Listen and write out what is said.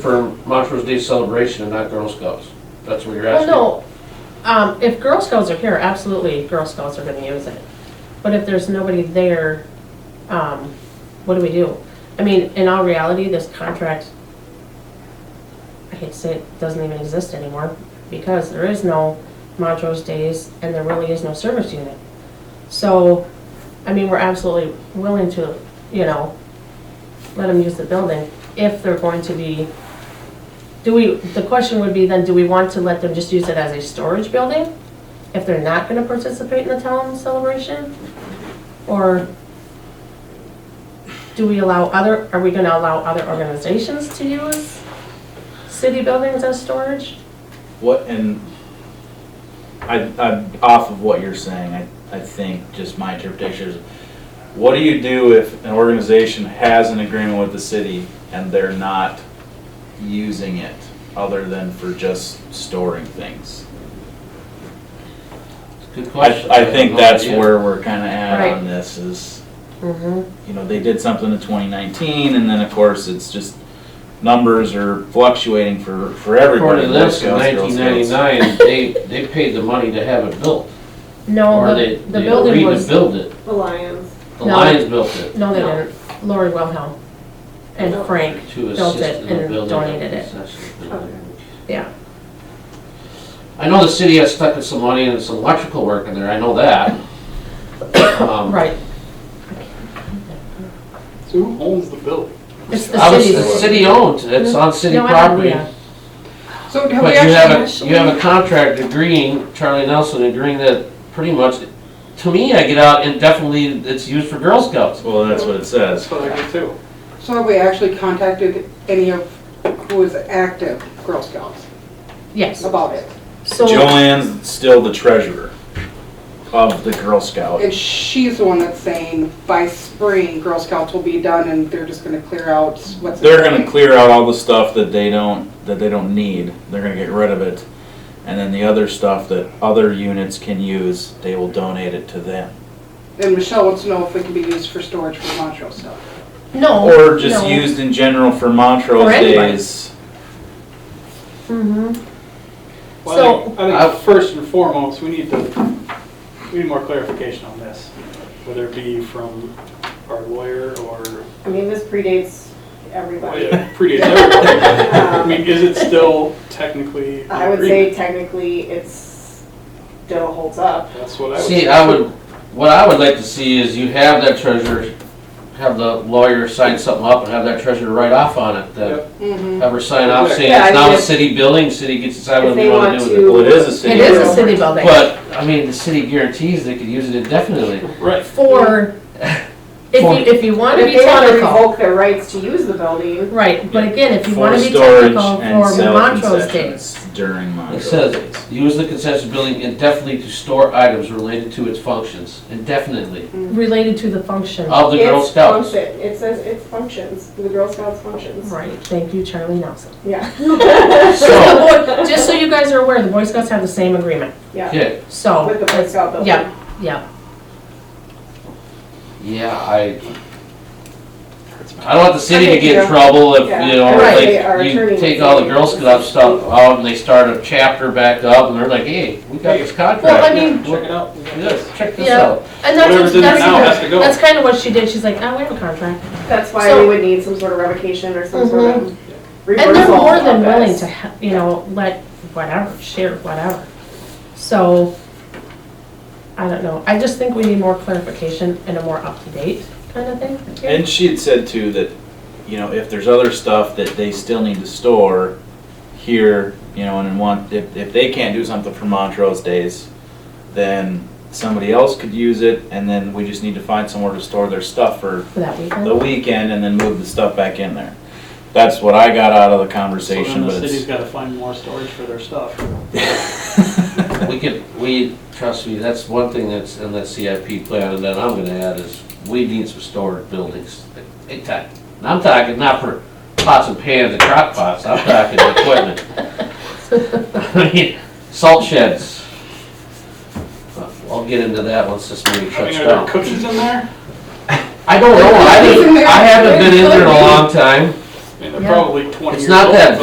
for Montrose Day celebration and not Girl Scouts? That's what you're Well, asking? Oh, no, um, if Girl Scouts are here, absolutely, Girl Scouts are gonna use it. But if there's nobody there, um, what do we do? I mean, in all reality, this contract, I hate to say it, doesn't even exist anymore because there is no Montrose Days and there really is no service unit. So, I mean, we're absolutely willing to, you know, let them use the building if they're going to be do we, the question would be then, do we want to let them just use it as a storage building? If they're not gonna participate in the town celebration? Or do we allow other, are we gonna allow other organizations to use city buildings as storage? What, and I, I, off of what you're saying, I, I think just my interpretation is, what do you do if an organization has an agreement with the city and they're not using it other than for just storing things? It's a Good I, question. I have think no that's idea. where we're kinda at Right. on this is, Mm-hmm. you know, they did something in twenty nineteen and then of course it's just numbers are fluctuating for, for everybody. According to this, in Boy Scouts, Girl nineteen Scouts. ninety-nine, they, they paid the money to have it built. No, Or they, Oh, the, the they building agreed to was, build it. The Lions. The No. Lions built it no, they No. didn't. Lori Wilhelm and No. Frank, to Built assist it in the and building. donated it. Okay. yeah. I know the city has stuck in some money and some electrical work in there, I know that. Um, Right, So who owns the building? it's I the was, the city's. Mm-hmm. city owned, it's on city No, I don't- property. yeah. So have we But you actually have a, initially? you have a contract agreeing, Charlie Nelson agreeing that pretty much, to me, I get out indefinitely, it's used for Girl Scouts. Well, that's what it says. That's what I get too. So have we actually contacted any of who is active Girl Scouts Yes, about it? so. Joanne's still the treasurer of the Girl Scout. And she's the one that's saying by spring, Girl Scouts will be done and they're just gonna clear out what's. They're gonna clear out all the stuff that they don't, that they don't need, they're gonna get rid of it. And then the other stuff that other units can use, they will donate it to them. And Michelle wants to know if it can be used for storage for Montrose stuff. No. Or just no. used in general for Montrose For anybody. days. Mhm. Well, I think- I So- think first and foremost, we need to, we need more clarification on this, whether it be from our lawyer or, I mean, this predates everybody. Oh, Yeah, predates everything. I Um, mean, is it still technically I an would say agreement? technically it's, still holds up. That's what I would See, say. I would, what I would like to see is you have that treasurer, have the lawyer sign something up and have that treasurer write off on it, that, Yep. Mm-hmm. have her sign off saying Yeah, it's I mean, now a if- city building, city gets to decide what If they they wanna want do with it. to. Well, it is a city It is a building. city building. But, I mean, the city guarantees they could use it indefinitely. Right, For, if For- you, if you want to If be they want to technical, revoke their rights to use the building, right, but again, if you For want to be storage technical and for sell Montrose Days. concessions during It Montrose says, days. use the concession building indefinitely to store items related to its functions, indefinitely, related to the function. of the Girl it's Scouts. function, it says it functions, the Girl Scouts functions, Right, thank you, Charlie Nelson. yeah, So, Just so you guys are aware, the Boy Scouts have the same agreement, yeah, yeah, so. with the Boy Scout building. Yeah, yeah, Yeah, I, I don't want the city to get in Yeah. trouble if, you know, Yeah. Right, our like, you attorney take is all the saying Girl this Scout is- stuff out and they start a chapter back up and they're like, hey, we got this well, I contract. mean, check it out. Yes, check this Yeah. out. and that's, Whatever's in there now has that's, to go. that's kind of what she did, she's like, oh, we have a contract. That's why So- Mm-hmm. we would need some sort of revocation or some sort of reversal. And they're more than of willing this. to, he- you know, let, whatever, share whatever. So, I don't know, I just think we need more clarification and a more up-to-date kind of thing. here. And she had said too that, you know, if there's other stuff that they still need to store here, you know, and in one, if, if they can't do something for Montrose Days, then somebody else could use it, and then we just need to find somewhere to store their stuff for For that the weekend, weekend and then move the stuff back in there. That's what I got out of the So conversation, then the but city's it's. gotta find more storage for their stuff. We could, we, trust me, that's one thing that's in that CIP plan and that I'm gonna add is we need some storage buildings. Big time. And I'm talking not for pots and pans and crock pots, I'm talking equipment. I mean, Salt sheds. Uh, I'll get into that once this meeting I shuts mean, are there down. cookies in there? I don't know, I didn't, I haven't been in there in a long time. I mean, and they're Yeah. probably twenty It's years old. not that but-